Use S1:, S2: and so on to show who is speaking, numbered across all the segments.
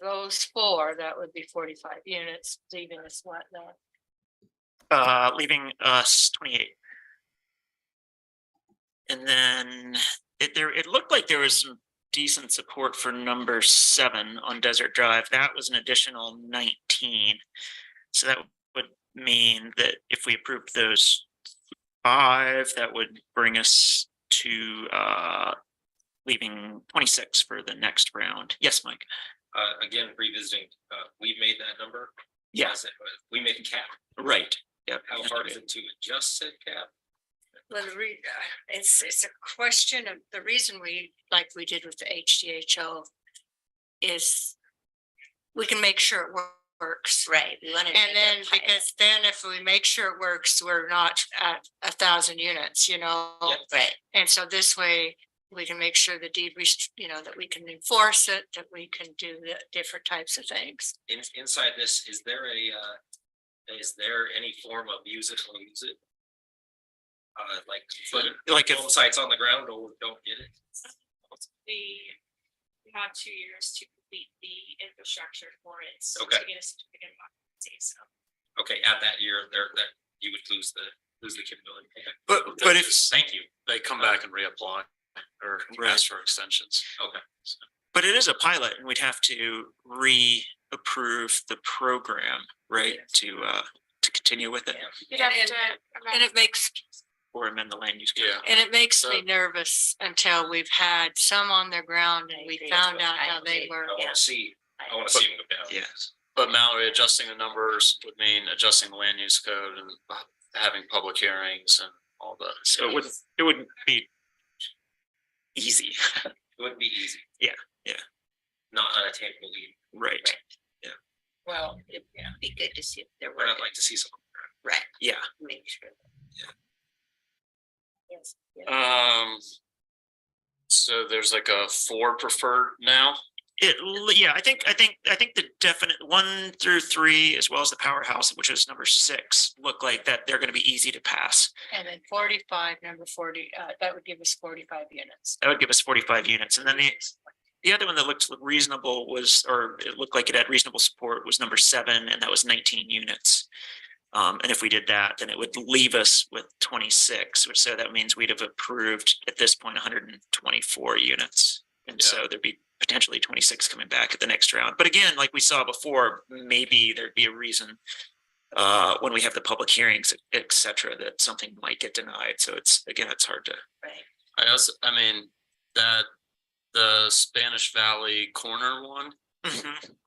S1: those four, that would be forty-five units, leaving us what now?
S2: uh, leaving us twenty-eight. And then it there, it looked like there was some decent support for number seven on Desert Drive. That was an additional nineteen. So that would mean that if we approved those five, that would bring us to uh leaving twenty-six for the next round. Yes, Mike?
S3: Uh, again, revisiting, uh, we made that number.
S2: Yes,
S3: We made a cap.
S2: right. Yeah.
S3: How hard is it to adjust said cap?
S1: Well, the re, uh, it's, it's a question of, the reason we, like we did with the HDHO is we can make sure it wor- works.
S4: Right. we wanna
S1: And
S4: make
S1: then,
S4: it pilot.
S1: because then if we make sure it works, we're not at a thousand units, you know?
S3: Yeah.
S4: Right,
S1: And so this way, we can make sure the deed, rest- you know, that we can enforce it, that we can do the different types of things.
S3: In, inside this, is there a, uh, is there any form of use it or lose it? Uh, like, but
S2: Like if
S3: film sites on the ground or don't get it?
S5: the, we have two years to complete the infrastructure for it. so
S3: Okay.
S5: To get a certificate of occupancy, so.
S3: Okay, at that year, there, that, you would lose the, lose the capability. Okay.
S6: But, but if
S3: Thank you.
S6: they come back and reapply or
S2: Right.
S6: ask for extensions.
S3: Okay.
S2: But it is a pilot and we'd have to re-approve the program, right, to uh, to continue with it
S5: You'd
S1: have
S5: have
S1: to
S5: to. um,
S1: And it makes,
S2: or amend the land use. code.
S6: Yeah.
S1: and it makes me
S6: So-
S1: nervous until we've had some on their ground and
S4: I
S1: we
S4: agree.
S1: found out
S4: I
S1: how they
S4: agree.
S1: work.
S3: I
S4: Yeah.
S3: wanna see, I wanna see them go down.
S2: Yes,
S6: But Mallory, adjusting the numbers would mean adjusting the land use code and uh, having public hearings and all the.
S2: so it wouldn't, it wouldn't be easy,
S3: It would be easy.
S2: Yeah, yeah.
S3: Not unattainable,
S2: right?
S4: well, it'd be good to see if there
S3: but
S4: were,
S3: I'd like to see some.
S4: right,
S2: Yeah,
S4: make sure. Yes. yeah.
S6: Um. So there's like a four preferred now.
S2: it, l- yeah, I think, I think, I think the definite one through three, as well as the powerhouse, which is number six, look like that they're gonna be easy to pass.
S1: And then forty-five, number forty, uh, that would give us forty-five units.
S2: That would give us forty-five units. And then the, the other one that looked reasonable was, or it looked like it had reasonable support was number seven, and that was nineteen units. Um, and if we did that, then it would leave us with twenty-six, which so that means we'd have approved at this point hundred and twenty-four units. And
S6: Yeah.
S2: so there'd be potentially twenty-six coming back at the next round. But again, like we saw before, maybe there'd be a reason uh, when we have the public hearings, et cetera, that something might get denied. So it's, again, it's hard to
S4: Right,
S6: I also, I mean, that the Spanish Valley corner one.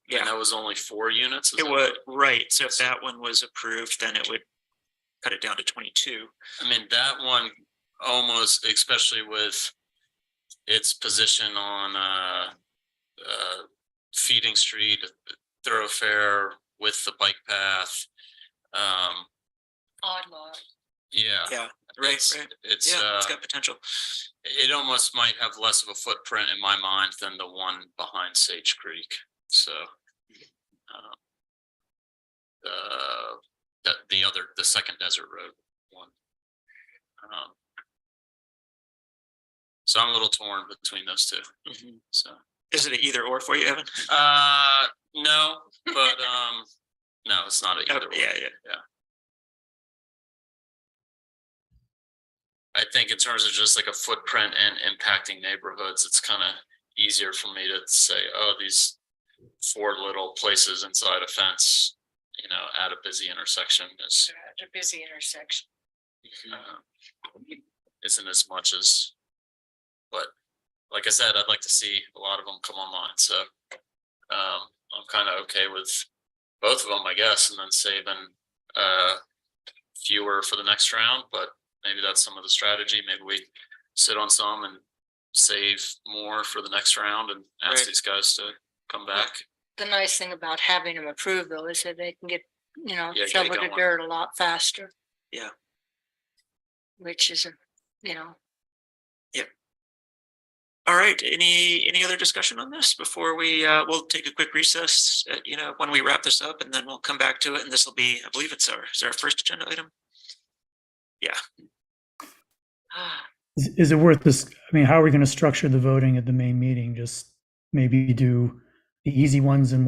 S2: Yeah.
S6: And that was only four units. is
S2: It
S6: that
S2: would,
S6: right?
S2: right, so if that one was approved, then it would cut it down to twenty-two.
S6: I mean, that one almost, especially with its position on uh. Uh, feeding street thoroughfare with the bike path. Um,
S1: Odd lot.
S6: yeah.
S2: Yeah,
S6: it's- It's
S2: Yeah,
S6: uh,
S2: it's got potential.
S6: it almost might have less of a footprint in my mind than the one behind Sage Creek, so. um, Uh, the, the other, the second desert road one. Um, So I'm a little torn between those two,
S2: Mhm.
S6: so,
S2: Is it an either or for you, Evan?
S6: uh, no, but, um, no, it's not a
S2: Oh,
S6: either way.
S2: Yeah, yeah,
S6: I think in terms of just like a footprint and impacting neighborhoods, it's kind of easier for me to say, oh, these four little places inside a fence, you know, at a busy intersection is,
S1: uh, A busy intersection.
S6: uh, isn't as much as, but like I said, I'd like to see a lot of them come online, so um, I'm kind of okay with both of them, I guess, and then saving uh fewer for the next round, but maybe that's some of the strategy. Maybe we sit on some and save more for the next round and ask
S2: Right.
S6: these guys to come back.
S1: The nice thing about having them approved though is that they can get, you know,
S6: Yeah, get it
S1: shovel the
S6: going.
S1: dirt a lot faster.
S2: Yeah.
S1: Which is, a you know,
S2: all right, any, any other discussion on this before we, uh, we'll take a quick recess, uh, you know, when we wrap this up, and then we'll come back to it, and this will be, I believe it's our, is our first agenda item?
S1: ah,
S7: Is is it worth this, I mean, how are we gonna structure the voting at the main meeting? Just maybe do the easy ones in